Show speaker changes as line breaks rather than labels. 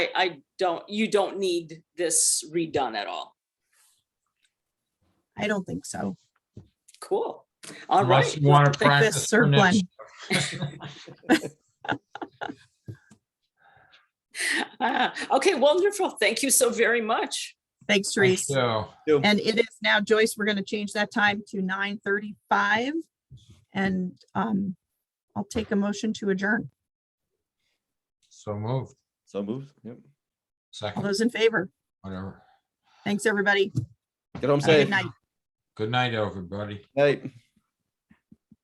I, I don't, you don't need this redone at all.
I don't think so.
Cool. All
Unless
right.
you want to
Take
practice
this
for
surplus.
next.
Ah, Okay, wonderful. Thank you so very much.
Thanks, Therese.
So,
And it is now, Joyce, we're gonna change that time to nine thirty-five. And um, I'll take a motion to adjourn.
so moved,
So moved. Yep.
All
second,
those in favor?
whatever.
Thanks, everybody.
Get home
Have a
safe.
Good night.
Good night, everybody.
Night.